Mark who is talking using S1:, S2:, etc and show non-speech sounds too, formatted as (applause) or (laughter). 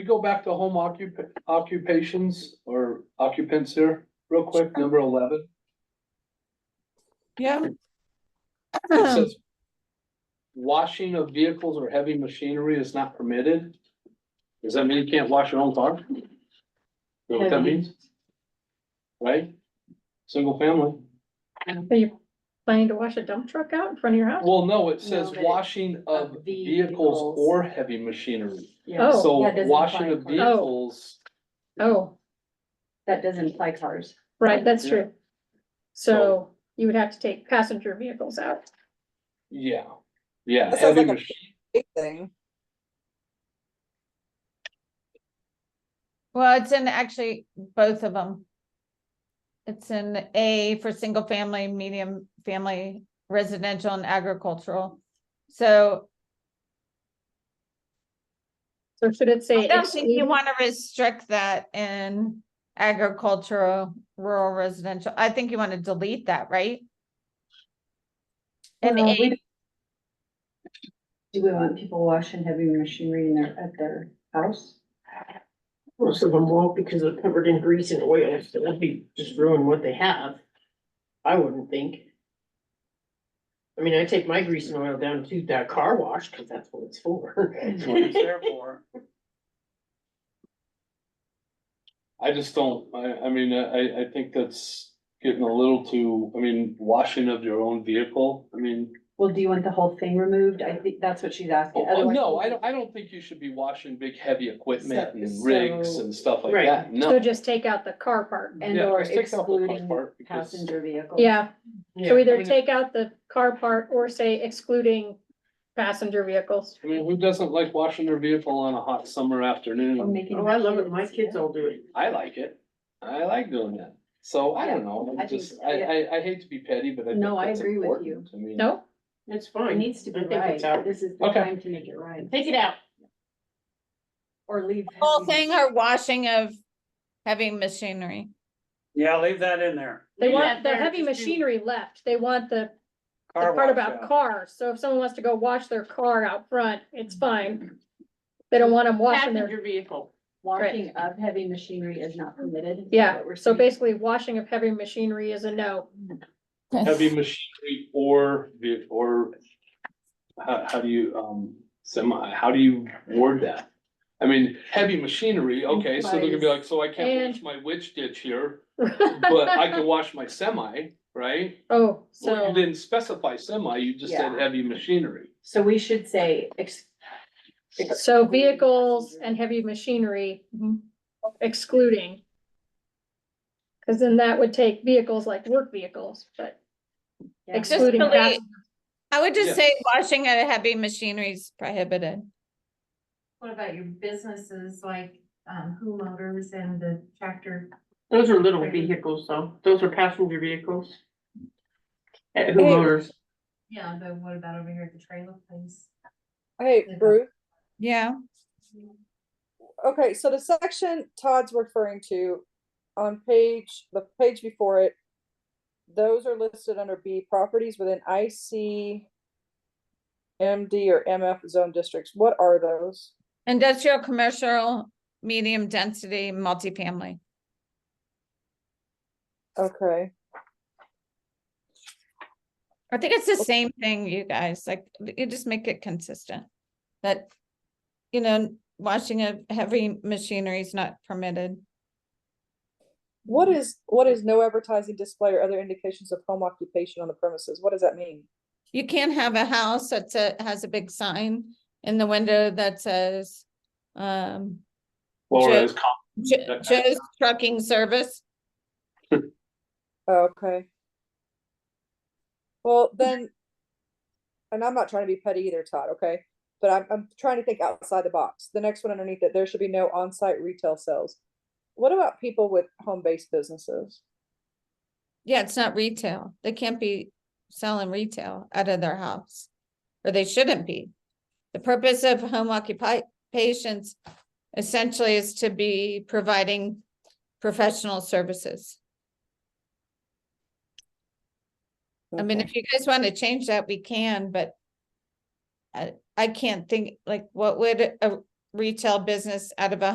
S1: You go back to home occup- occupations or occupants here, real quick, number eleven.
S2: (clears throat)
S3: Yeah.
S1: It says Washing of vehicles or heavy machinery is not permitted. Does that mean you can't wash your own car? You know what that
S4: Heavy.
S1: means? Right? Single family.
S4: Are you planning to wash a dump truck out in front of your house?
S1: Well, no, it says
S5: No, but it-
S1: washing of
S5: of
S1: vehicles
S5: vehicles.
S1: or heavy machinery.
S5: Yeah,
S4: Oh.
S1: So
S5: that doesn't
S1: washing
S5: apply
S1: of
S5: to cars.
S4: Oh.
S1: vehicles,
S4: Oh,
S5: that doesn't apply cars.
S4: right, that's
S1: Yeah.
S4: true. So you would have to take passenger vehicles out.
S1: yeah, yeah.
S3: That sounds
S1: heavy
S3: like a-
S1: mach-
S3: big thing.
S6: Well, it's in actually both of them. It's in A for single family, medium family, residential and agricultural. So
S4: So should it say?
S6: I don't think you
S4: exceed-
S6: want to restrict that in agricultural, rural residential. I think you want to delete that, right? And
S5: Well,
S6: A,
S5: we- Do we want people washing heavy machinery in their, at their house?
S7: Most of them won't because they're covered in grease and oil, so that'd be just ruin what they have. I wouldn't think. I mean, I take my grease and oil down to that car wash, cause that's what it's (laughs) for.
S1: That's what it's there for. I just don't, I, I mean, I, I think that's getting a little too, I mean, washing of your own vehicle, I mean.
S5: Well, do you want the whole thing removed? I think that's what she's asking.
S1: oh,
S5: Otherwise-
S1: No, I don't, I don't think you should be washing big heavy equipment
S5: So-
S1: and rigs
S5: so-
S1: and stuff like
S7: Right.
S1: that, no.
S4: So just take out the car part.
S5: And
S1: Yeah,
S5: or
S1: just take out the car
S5: excluding
S1: part because-
S5: passenger vehicles.
S4: Yeah, so
S7: Yeah,
S4: either
S1: mean-
S4: take out the car part or say excluding passenger vehicles.
S1: I mean, who doesn't like washing their vehicle on a hot summer
S5: Or
S1: afternoon?
S5: making
S7: oh, I love it, my
S5: kids-
S7: kids all do it.
S1: I like it, I like doing that, so I don't know,
S5: Yeah,
S1: I
S5: I think-
S1: just, I, I, I hate to be petty, but I think
S5: No, I
S1: that's
S5: agree with
S1: important.
S5: you.
S1: I mean,
S4: No?
S7: It's
S5: It
S7: fine.
S5: needs to be
S7: I think
S5: right.
S7: it's out.
S5: This is the
S1: Okay.
S5: time to make it right.
S7: Take it out.
S5: Or leave.
S6: whole
S5: heavy-
S6: thing or washing of heavy machinery.
S2: Yeah, leave that in there.
S4: They
S7: Leave
S4: want
S7: that
S4: the
S7: there,
S4: heavy
S7: just do-
S4: machinery left. They want the, the
S2: Car
S4: part
S2: wash
S4: about
S2: out.
S4: cars. So if someone wants to go wash their car out front, it's fine. They don't want them washing their,
S7: Passenger vehicle.
S5: Washing of heavy machinery is not permitted. is
S4: yeah,
S5: what we're
S4: so
S5: saying.
S4: basically washing of heavy machinery is a no.
S1: heavy machinery or, ve- or how, how do you, um, semi, how do you word that? I mean, heavy machinery, okay, so they're gonna be like, so I can't wash
S4: And-
S1: my witch ditch
S4: (laughs)
S1: here, but I can wash my semi, right?
S4: Oh,
S1: Well, you
S4: so,
S1: didn't specify semi, you just said
S5: Yeah.
S1: heavy machinery.
S5: So we should say ex-
S4: so vehicles and heavy machinery
S5: Mm-hmm.
S4: excluding. Cause then that would take vehicles like work vehicles, but
S5: Yeah.
S4: excluding
S6: Just delete-
S4: pass-
S6: I would
S1: Yeah.
S6: just say washing of heavy machinery is prohibited.
S8: What about your businesses like um Who Motors and the tractor?
S7: Those are little vehicles though, those are passenger vehicles. At Who
S3: Hey.
S7: Motors,
S8: Yeah, but what about over here at the trailer place?
S3: Hey,
S8: Yeah.
S3: Bruce.
S6: Yeah.
S5: Mm-hmm.
S3: Okay, so the section Todd's referring to on page, the page before it, those are listed under B properties within IC MD or MF zone districts. What are those?
S6: Industrial, commercial, medium density, multifamily.
S3: Okay,
S6: I think it's the same thing, you guys, like, you just make it consistent. That, you know, washing of heavy machinery is not permitted.
S3: what is, what is no advertising display or other indications of home occupation on the premises? What does that mean?
S6: You can't have a house that's a, has a big sign in the window that says, um,
S1: Laura is
S6: Jo- Joe's Trucking Service.
S3: Oh, Okay. Well, then, and I'm not trying to be petty either, Todd, okay? But I'm, I'm trying to think outside the box. The next one underneath it, there should be no on-site retail sales. What about people with home-based businesses?
S6: Yeah, it's not retail. They can't be selling retail out of their house, or they shouldn't be. The purpose of home occupations essentially is to be providing professional services. I mean,
S3: Okay.
S6: if you guys want to change that, we can, but I, I can't think, like, what would a retail business out of a